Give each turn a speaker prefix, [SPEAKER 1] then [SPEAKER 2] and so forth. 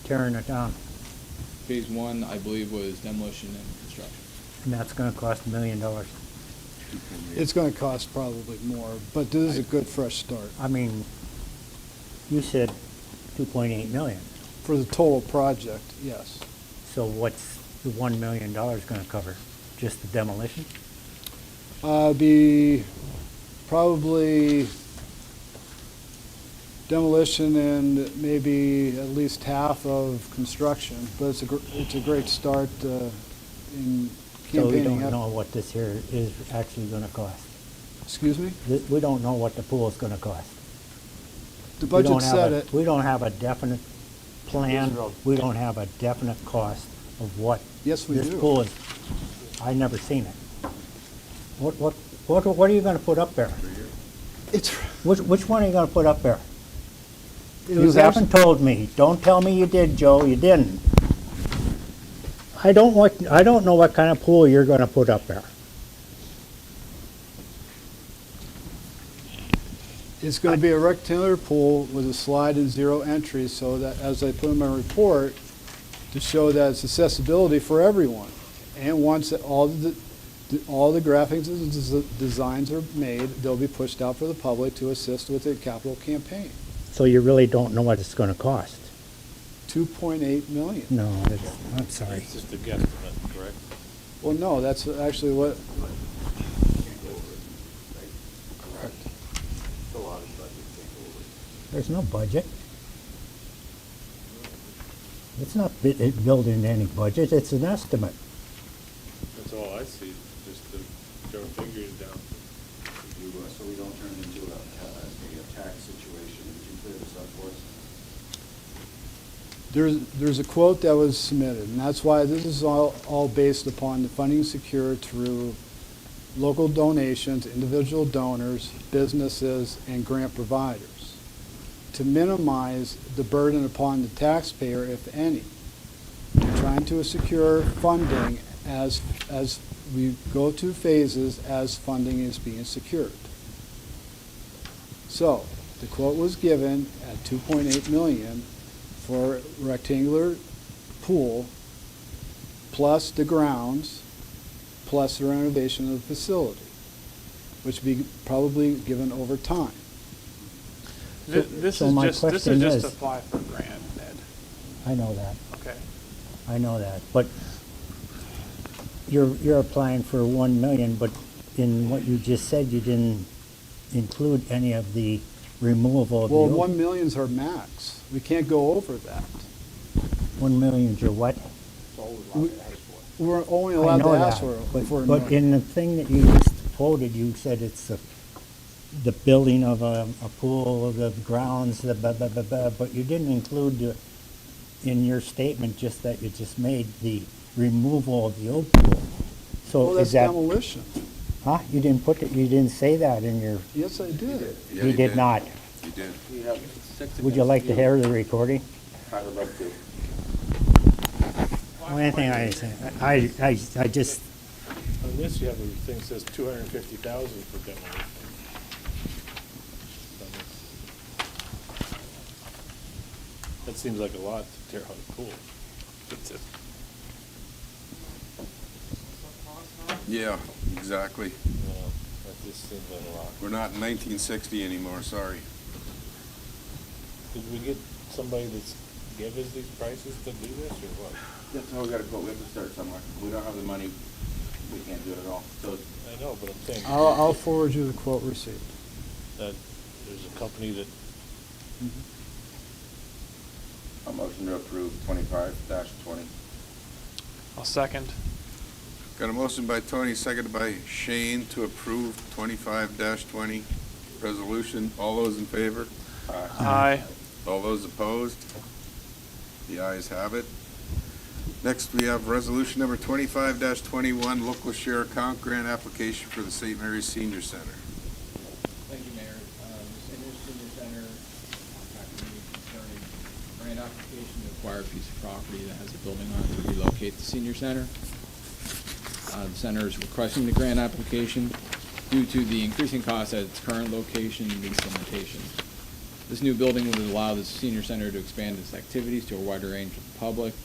[SPEAKER 1] tearing it down,
[SPEAKER 2] Phase one, I believe, was demolition and construction.
[SPEAKER 1] and that's gonna cost a million dollars.
[SPEAKER 3] It's gonna cost probably more, but this is a good fresh start
[SPEAKER 1] I mean, you said two point eight million,
[SPEAKER 3] for the total project, yes.
[SPEAKER 1] so what's the one million dollars gonna cover? Just the demolition?
[SPEAKER 3] Uh, it'd be probably demolition and maybe at least half of construction, but it's a, gr- it's a great start, uh, in
[SPEAKER 1] So we
[SPEAKER 3] campaigning.
[SPEAKER 1] don't
[SPEAKER 3] up-
[SPEAKER 1] know what this here is actually gonna cost.
[SPEAKER 3] Excuse me?
[SPEAKER 1] Th- We don't know what the pool's gonna cost.
[SPEAKER 3] The
[SPEAKER 1] We don't
[SPEAKER 3] budget
[SPEAKER 1] have
[SPEAKER 3] said
[SPEAKER 1] a-
[SPEAKER 3] it.
[SPEAKER 1] We don't have a definite plan, we don't have a definite cost of what.
[SPEAKER 3] Yes, we do.
[SPEAKER 1] This pool is, I never seen it. What, what, what, what are you gonna put up there?
[SPEAKER 3] It's,
[SPEAKER 1] Which, which one are you gonna put up there?
[SPEAKER 3] it
[SPEAKER 1] You
[SPEAKER 3] was actually,
[SPEAKER 1] haven't told me. Don't tell me you did, Joe, you didn't. I don't want, I don't know what kind of pool you're gonna put up there.
[SPEAKER 3] it's gonna be a rectangular pool with a slide and zero entry, so that, as I put in my report, to show that it's accessibility for everyone. And once that all the, the- all the graphics and des- designs are made, they'll be pushed out for the public to assist with the capital campaign.
[SPEAKER 1] So you really don't know what it's gonna cost.
[SPEAKER 3] Two point eight million.
[SPEAKER 1] No, it's, I'm sorry.
[SPEAKER 4] It's just a guesstimate, correct?
[SPEAKER 3] Well, no, that's actually what,
[SPEAKER 4] Correct. A lot of budget takeover.
[SPEAKER 1] There's no budget. It's not bu- it built in any budget, it's an estimate.
[SPEAKER 4] That's all I see, just the, throw figures down.
[SPEAKER 5] you, uh, so we don't turn it into a, ta- a tax situation, would you clear this up for us?
[SPEAKER 3] There's, there's a quote that was submitted, and that's why this is all, all based upon the funding secured through local donations, individual donors, businesses, and grant providers, to minimize the burden upon the taxpayer, if any. We're Trying to secure funding as, as we go through phases as funding is being secured. So, the quote was given at two point eight million for rectangular pool, plus the grounds, plus the renovation of the facility, which be probably given over time.
[SPEAKER 6] Th- This
[SPEAKER 1] so
[SPEAKER 6] is
[SPEAKER 1] my
[SPEAKER 6] just, this
[SPEAKER 1] question
[SPEAKER 6] is just
[SPEAKER 1] is-
[SPEAKER 6] apply for grant, Ned.
[SPEAKER 1] I know that,
[SPEAKER 6] Okay.
[SPEAKER 1] I know that, but you're, you're applying for one million, but in what you just said, you didn't include any of the removal of the.
[SPEAKER 3] Well,
[SPEAKER 1] old-
[SPEAKER 3] one million's our max. We can't go over that.
[SPEAKER 1] One million is your what?
[SPEAKER 3] We're only
[SPEAKER 1] I
[SPEAKER 3] allowed to
[SPEAKER 1] know
[SPEAKER 3] ask
[SPEAKER 1] that,
[SPEAKER 3] for,
[SPEAKER 1] but-
[SPEAKER 3] for a
[SPEAKER 1] But
[SPEAKER 3] million.
[SPEAKER 1] in the thing that you just quoted, you said it's the, the building of a, a pool, the grounds, the blah, blah, blah, blah, but you didn't include the- in your statement just that you just made the removal of the old pool.
[SPEAKER 3] Well,
[SPEAKER 1] So
[SPEAKER 3] that's
[SPEAKER 1] is that,
[SPEAKER 3] demolition.
[SPEAKER 1] huh? You didn't put, it- you didn't say that in your,
[SPEAKER 3] Yes, I did.
[SPEAKER 1] you did not.
[SPEAKER 5] You did.
[SPEAKER 1] Would you like to hear the recording?
[SPEAKER 5] I would like to.
[SPEAKER 1] Only thing I, I, I, I just,
[SPEAKER 4] Unless you have a thing that says two hundred and fifty thousand for demolition. Then it's- That seems like a lot to tear out a pool. It's a-
[SPEAKER 7] Yeah, exactly.
[SPEAKER 4] No, that just seems like a lot.
[SPEAKER 7] We're not in 1960 anymore, sorry.
[SPEAKER 4] Did we get somebody that's give us these prices to do this, or what?
[SPEAKER 5] Yeah, so we gotta go, we have to start somewhere. We don't have the money, we can't do it at all. So
[SPEAKER 4] I know, but I'm saying.
[SPEAKER 3] I'll, I'll forward you the quote received.
[SPEAKER 4] that there's a company that,
[SPEAKER 5] a motion to approve twenty-five dash twenty.
[SPEAKER 6] I'll second.
[SPEAKER 7] Got a motion by Tony, seconded by Shane to approve 25-20 resolution. All those in favor?
[SPEAKER 6] Aye.
[SPEAKER 7] All those opposed? The ayes have it. Next, we have resolution number 25-21, local share account grant application for the St. Mary's Senior Center.
[SPEAKER 2] Thank you, Mayor. Um, St. Mary's Senior Center contacted me concerning grant application to acquire a piece of property that has a building on it to relocate the senior center. Uh, The center is requesting the grant application due to the increasing cost at its current location and lease limitations. This new building would allow the senior center to expand its activities to a wider range of the public,